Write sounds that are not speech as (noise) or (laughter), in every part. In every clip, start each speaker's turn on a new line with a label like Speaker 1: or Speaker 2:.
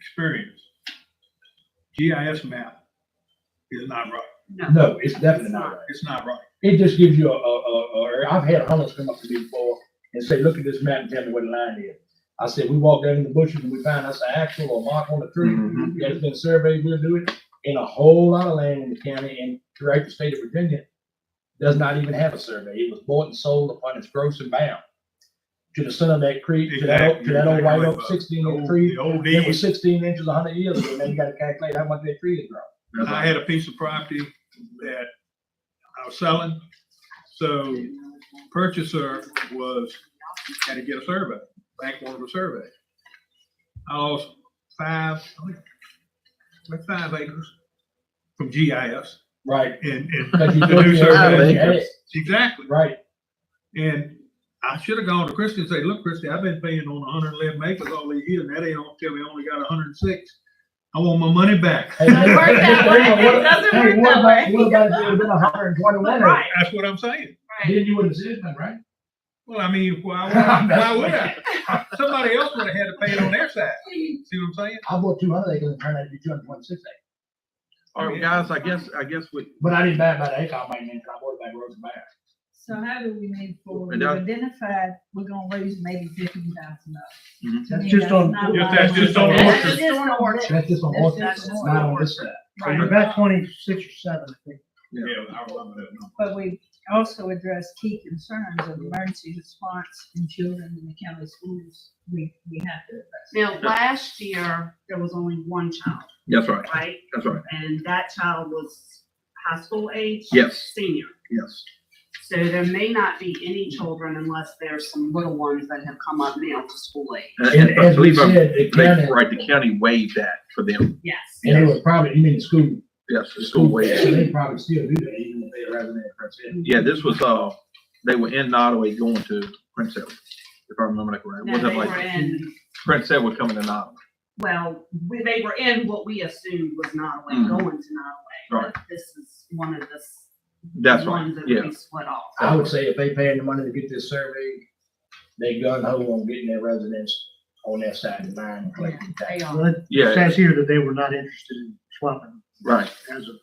Speaker 1: experience, GIS map is not right.
Speaker 2: No,
Speaker 3: No, it's definitely not right.
Speaker 1: It's not right.
Speaker 3: It just gives you a, a, a, a, I've had hunters come up to me before and say, look at this map and tell me where the line is. I said, we walk down in the bushes and we find us an actual or mark on the tree
Speaker 1: Mm-hmm.
Speaker 4: Mhm.
Speaker 3: that has been surveyed, we'll do it. And a whole lot of land in the county and throughout the state of Virginia does not even have a survey. It was bought and sold upon its gross and bound. To the son of that creek, to that, old- to that old white oak sixteen
Speaker 1: The
Speaker 3: inch
Speaker 1: old-
Speaker 3: tree,
Speaker 1: The old
Speaker 3: it
Speaker 1: days.
Speaker 3: was sixteen inches a hundred years ago, now you gotta calculate how much that tree had grown.
Speaker 1: I had a piece of property that I was selling. So purchaser was, had to get a survey, bank wanted a survey. I lost five, I think, like five acres from GIS
Speaker 3: Right.
Speaker 1: and, and, (laughs)
Speaker 3: Because you
Speaker 1: The
Speaker 3: took
Speaker 1: new
Speaker 3: your-
Speaker 1: survey.
Speaker 3: Yeah,
Speaker 1: exactly.
Speaker 3: Right,
Speaker 1: And I should have gone to Christie and say, look, Christie, I've been paying on hundred and eleven acres all these years, and that ain't on, tell me I only got hundred and six. I want my money back.
Speaker 3: Hey,
Speaker 2: Doesn't work that way.
Speaker 3: hey, what-
Speaker 2: It doesn't
Speaker 3: hey,
Speaker 2: work
Speaker 3: what
Speaker 2: that
Speaker 3: about-
Speaker 2: way.
Speaker 3: What about if it had been a hundred and twenty-one?
Speaker 2: right,
Speaker 1: That's what I'm saying.
Speaker 2: right.
Speaker 3: Then you would have said that, right?
Speaker 1: Well, I mean,
Speaker 3: (laughs)
Speaker 1: why, would I- why would I? Somebody else would have had to pay it on their side. See what I'm saying?
Speaker 3: I bought two hundred acres and turned out to be two hundred twenty-six acres,
Speaker 4: All right, Oh, guys, I guess, I guess we,
Speaker 3: but I didn't buy it by the acre, I might mean, I bought it by rows and back.
Speaker 5: So how do we move forward?
Speaker 4: And
Speaker 5: We
Speaker 4: that-
Speaker 5: identified, we're gonna raise maybe fifteen thousand
Speaker 4: Mhm.
Speaker 5: dollars.
Speaker 3: That's just on-
Speaker 1: Yes, that's just on
Speaker 2: That's just on orchard.
Speaker 3: That's just on
Speaker 5: That's
Speaker 3: horses,
Speaker 5: just
Speaker 3: it's
Speaker 5: on
Speaker 3: not on
Speaker 2: horse.
Speaker 3: this side.
Speaker 2: Right.
Speaker 5: Right.
Speaker 6: About twenty-six or seven, I think.
Speaker 1: Yeah, I remember that number.
Speaker 5: But we also addressed key concerns of emergency response in children in the county schools. We, we have to address.
Speaker 2: Now, last year, there was only one child,
Speaker 4: that's right,
Speaker 2: right?
Speaker 4: that's right,
Speaker 2: And that child was high school age?
Speaker 4: Yes.
Speaker 2: Senior.
Speaker 4: yes.
Speaker 2: So there may not be any children unless there's some little ones that have come up now to school age.
Speaker 4: And-
Speaker 3: And
Speaker 4: and I
Speaker 3: as we
Speaker 4: believe I'm-
Speaker 3: said, the
Speaker 4: they-
Speaker 3: county,
Speaker 4: Right, the county waived that for them,
Speaker 2: Yes.
Speaker 3: and it was probably, you mean the school,
Speaker 4: yes, the
Speaker 3: the
Speaker 4: school
Speaker 3: school,
Speaker 4: waived.
Speaker 3: so
Speaker 4: it.
Speaker 3: they probably still do that even if they're rather than Princeton.
Speaker 4: Yeah, this was, uh, they were in Nottaway going to Prince Edward, if I remember that correctly.
Speaker 2: No,
Speaker 4: Wasn't
Speaker 2: they were
Speaker 4: like,
Speaker 2: in,
Speaker 4: Prince Edward coming to Nottaway.
Speaker 2: well, we- they were in what we assumed was Nottaway,
Speaker 4: Mhm.
Speaker 2: going to Nottaway.
Speaker 4: Right.
Speaker 2: But This is one of the s-
Speaker 4: That's right,
Speaker 2: ones that
Speaker 4: yeah,
Speaker 2: we split off.
Speaker 3: I would say if they paying the money to get this survey, they gun ho on getting their residents on their side of the line, and collecting taxes.
Speaker 2: They are.
Speaker 6: Well, it
Speaker 4: yeah,
Speaker 6: says here that they were not interested in swapping
Speaker 4: right,
Speaker 6: as of,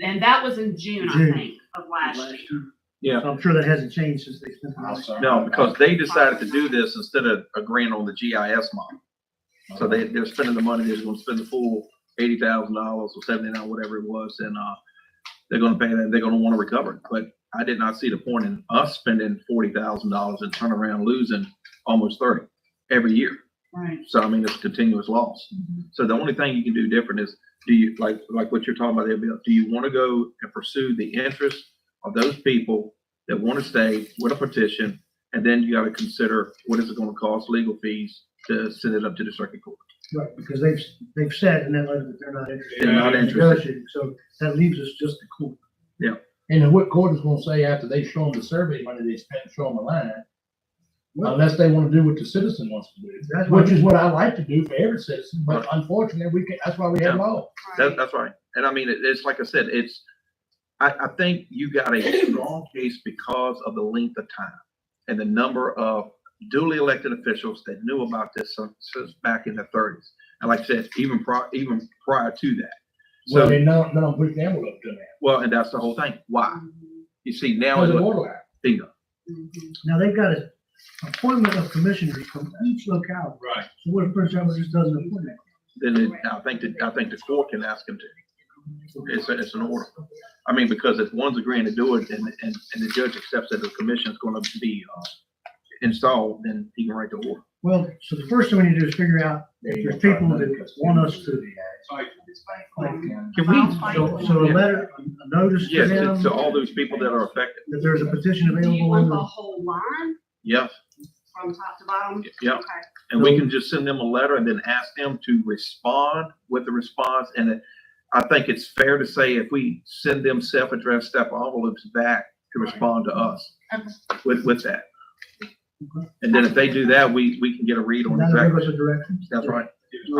Speaker 2: And that was in June, I
Speaker 6: June.
Speaker 2: think, of last
Speaker 6: Last
Speaker 2: year.
Speaker 4: yeah.
Speaker 6: so I'm sure that hasn't changed since they spent. the
Speaker 3: I'm
Speaker 6: money.
Speaker 3: sorry.
Speaker 4: No, because they decided to do this instead of agreeing on the GIS model. So they, they're spending the money, they're gonna spend the full eighty thousand dollars or seventy-nine, whatever it was, and, uh, they're gonna pay that, they're gonna wanna recover it. But I did not see the point in us spending forty thousand dollars and turn around losing almost thirty every year.
Speaker 2: Right.
Speaker 4: So I mean, it's continuous loss. So the only thing you can do different is, do you, like, like what you're talking about there, Bill, do you want to go and pursue the interest of those people that want to stay with a petition? And then you got to consider what is it going to cost legal fees to send it up to the circuit court?
Speaker 6: Right, because they've, they've said in that letter that they're not interested.
Speaker 4: They're not
Speaker 6: in
Speaker 4: interested.
Speaker 6: negotiating, So that leaves us just the court.
Speaker 3: And then what court is gonna say after they show them the survey money they spent, show them a line? Unless they wanna do what the citizen wants to
Speaker 6: That's
Speaker 3: do,
Speaker 6: what-
Speaker 3: which is what I like to do for every citizen, but unfortunately, we can, that's why we have law.
Speaker 4: That, that's right. And I mean, it- it's like I said, it's, I, I think you got a strong case because of the length of time and the number of duly elected officials that knew about this since, since back in the thirties. And like I said, even prior, even prior to that.
Speaker 3: So
Speaker 4: So,
Speaker 3: they now, now I'm putting the envelope to that,
Speaker 4: well, and that's the whole thing. Why? You see now
Speaker 3: because
Speaker 4: is
Speaker 3: of
Speaker 4: what,
Speaker 3: borderline.
Speaker 4: bingo.
Speaker 6: Now, they've got an appointment of commissioners from each locality.
Speaker 1: Right.
Speaker 6: So what if Prince Edward just doesn't appoint that?
Speaker 4: Then it, I think that, I think the court can ask him to. It's, a- it's an order. I mean, because if one's agreeing to do it and, and, and the judge accepts that the commission's gonna be, uh, installed, then he can write the order.
Speaker 6: Well, so the first thing we need to do is figure out,
Speaker 3: There you
Speaker 6: there's
Speaker 3: go.
Speaker 6: people that want us to,
Speaker 1: Like,
Speaker 6: like,
Speaker 4: Can we,
Speaker 6: so, so a letter, a notice to
Speaker 4: yes, to-
Speaker 6: them,
Speaker 4: to all those people that are affected,
Speaker 6: that there's a petition
Speaker 2: Do you
Speaker 6: available. in
Speaker 2: want the
Speaker 6: the-
Speaker 2: whole line
Speaker 4: yes,
Speaker 2: from top to bottom?
Speaker 4: yeah.
Speaker 2: Okay.
Speaker 4: And we can just send them a letter and then ask them to respond with the response. And it- I think it's fair to say if we send them self-addressed step envelopes back to respond to us with, with that. And then if they do that, we, we can get a read on
Speaker 6: Now they give
Speaker 4: exactly,
Speaker 6: us a direction.
Speaker 4: that's right.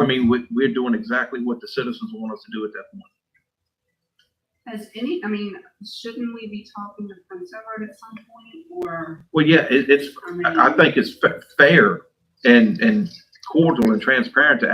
Speaker 4: I mean, we, we're doing exactly what the citizens want us to do at that point.
Speaker 2: Has any, I mean, shouldn't we be talking to Prince Edward at some point or?
Speaker 4: Well, yeah, it, it's,
Speaker 2: mean-
Speaker 4: I I think it's fa- fair and, and cordial and transparent to